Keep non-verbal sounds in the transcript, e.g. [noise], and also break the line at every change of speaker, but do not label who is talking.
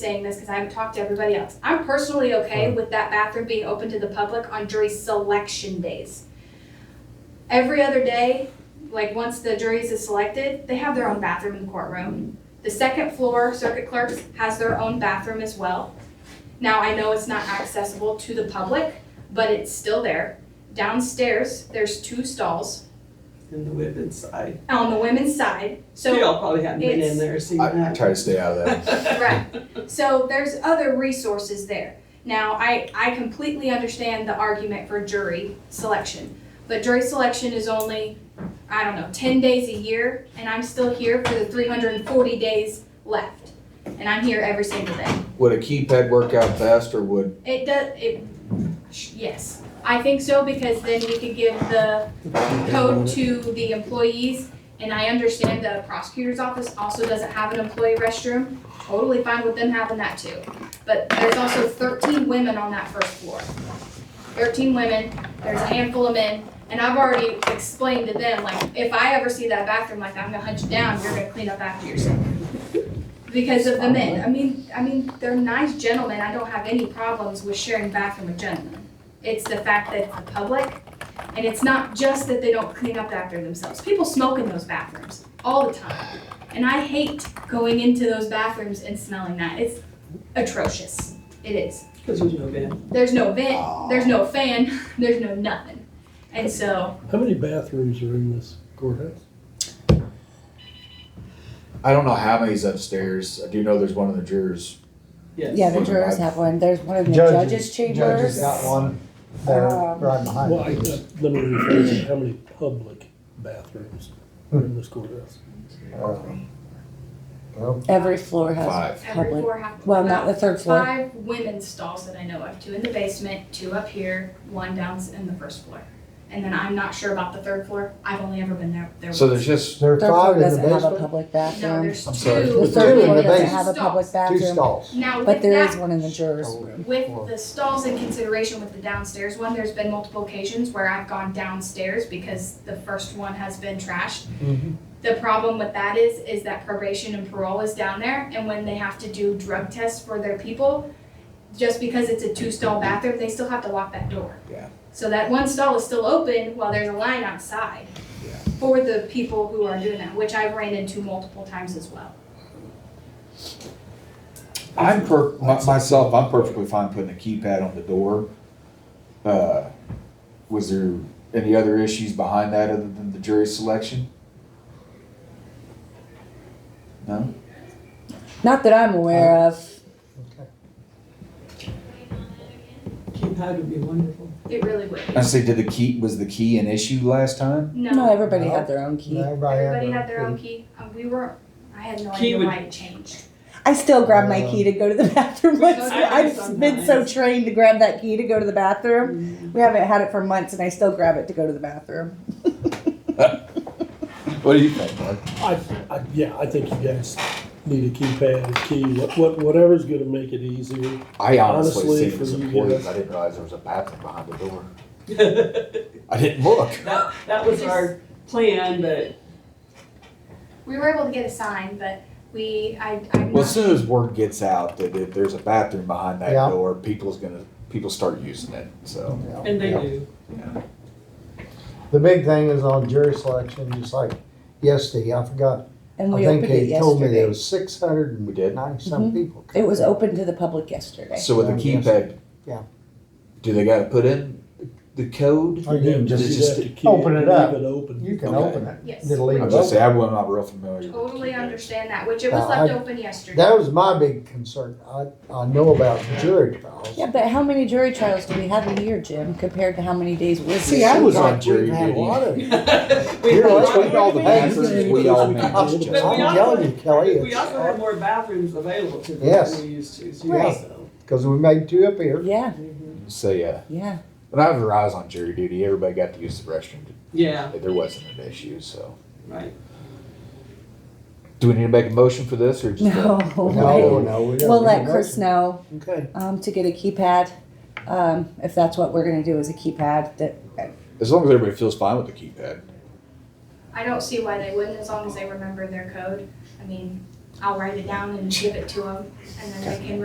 saying this because I haven't talked to everybody else. I'm personally okay with that bathroom being open to the public on jury selection days. Every other day, like once the juries is selected, they have their own bathroom in the courtroom. The second floor circuit clerks has their own bathroom as well. Now, I know it's not accessible to the public, but it's still there. Downstairs, there's two stalls
in the women's side.
on the women's side, so.
They all probably hadn't been in
it's-
there, seen
I
that.
try to stay out of that.
[laughs]
[laughs]
Right. So there's other resources there. Now, I, I completely understand the argument for jury selection, but jury selection is only, I don't know, ten days a year, and I'm still here for the three hundred and forty days left. And I'm here every single day.
Would a keypad work out best or would,
It does, it, sh- yes, I think so, because then we could give the code to the employees. And I understand the prosecutor's office also doesn't have an employee restroom, totally fine with them having that too. But there's also thirteen women on that first floor. Thirteen women, there's a handful of men, and I've already explained to them, like, if I ever see that bathroom, like, I'm gonna hunt you down, you're gonna clean up after yourself. Because of the men, I mean, I mean, they're nice gentlemen, I don't have any problems with sharing bathroom with gentlemen. It's the fact that it's the public, and it's not just that they don't clean up after themselves. People smoke in those bathrooms all the time. And I hate going into those bathrooms and smelling that. It's atrocious. It is.
Because there's no van.
There's no
uh,
vent, Eh, there's no fan, [laughs] there's no nothing. And so,
How many bathrooms are in this courthouse?
I don't know how many's upstairs. I do know there's one in the jurors.
Yes.
Yeah, the jurors have one. There's one in the
Judges-
judges'
Judges
chambers.
got one there
Um,
right behind
Well, I,
it.
uh, let me rephrase it, how many public bathrooms are in this courthouse?
Uh, well,
Every floor has,
Five.
every
Public.
floor half.
well, not the third floor.
Five women's stalls that I know of, two in the basement, two up here, one down in the first floor. And then I'm not sure about the third floor. I've only ever been there, there
So
once.
there's just,
There are
Third
five
floor
in the
doesn't have a
basement,
public
No,
bathroom.
there's
I'm sorry.
two.
The
Two in
third floor
the
doesn't
basement.
have a public
two
bathroom,
stalls.
Now with
but there is
that-
one in the jurors'
Oh.
room.
With the stalls in consideration with the downstairs one, there's been multiple occasions where I've gone downstairs because the first one has been trashed.
Mhm.
The problem with that is, is that probation and parole is down there, and when they have to do drug tests for their people, just because it's a two-stall bathroom, they still have to lock that door.
Yeah.
So that one stall is still open while there's a line outside for the people who are doing that, which I've ran into multiple times as well.
I'm per, my- myself, I'm perfectly fine putting a keypad on the door. Uh, was there any other issues behind that other than the jury selection? No?
Not that I'm aware
Oh.
of.
Keypad would be wonderful. [laughs]
It really would.
I say, did the key, was the key an issue last time?
No, everybody
No.
had their own key.
Everybody had their own key. Uh, we were, I had no
Key
idea
would-
why it changed.
I still grab my key to go to the [laughs] bathroom once.
I- I
I've been so
sometimes-
trained to grab that key to go to the bathroom.
Mm.
We haven't had it for months and I still grab it to go to the bathroom.
What do you think, Mark?
I, I, yeah, I think you guys need a keypad, a key, what, what, whatever's gonna make it easier.
I honestly
Honestly,
seen it was
for you
employees.
guys-
I didn't realize there was a bathroom behind the door.
that,
I didn't look.
that was our plan, but
We were able to get a sign, but we, I, I'm
Well, as
not,
soon as word gets out that if there's a bathroom behind that
Yeah.
door, people's gonna people start using it. So
and they do.
The big thing is on jury selection, just like yesterday, I forgot.
And
I
we
think
opened it
they told me there
yesterday. Mm-hmm.
was six hundred
We did.
and ninety-some people.
It was open to the public yesterday.
so with a
Yeah, I guess.
keypad,
Yeah.
do they gotta put in the code?
Or Oh, you can
You
just,
just-
have to keep
open it up.
Leave it open.
you can
Okay.
open it,
yes,
it'll leave
I
it
was gonna say
open.
I am not real familiar. with
totally
keypads.
understand that, which it was
Uh,
left
I-
open yesterday.
That was my big concern. I, I know about jury trials.
Yeah, but how many jury trials do we have a year, Jim, compared to how many days we're
See,
I
I
was on
thought
jury
we had a
duty.
lot
[laughs]
of.
We
You're
had
like,
more
all the
bathrooms.
bathrooms we all managed.
[laughs] But we
I'm
also-
telling you, Kelly,
We
it's,
also had more bathrooms available to them
Yes.
than we used to, so
Right.
so.
because we made two up here.
Yeah,
So yeah,
yeah.
when I was on jury duty, everybody got to use the restroom.
Yeah,
There wasn't an issue. So
right.
do we need to make a motion for this or just?
No.
No, no, we don't.
We'll
need
let
a
Chris
motion.
know
Okay.
um, to get a keypad. Um, if that's what we're going to do is a keypad that
As long as everybody feels fine with the keypad.
I don't see why they wouldn't, as long as they remember their code. I mean, I'll write it down and give it to them, and then they can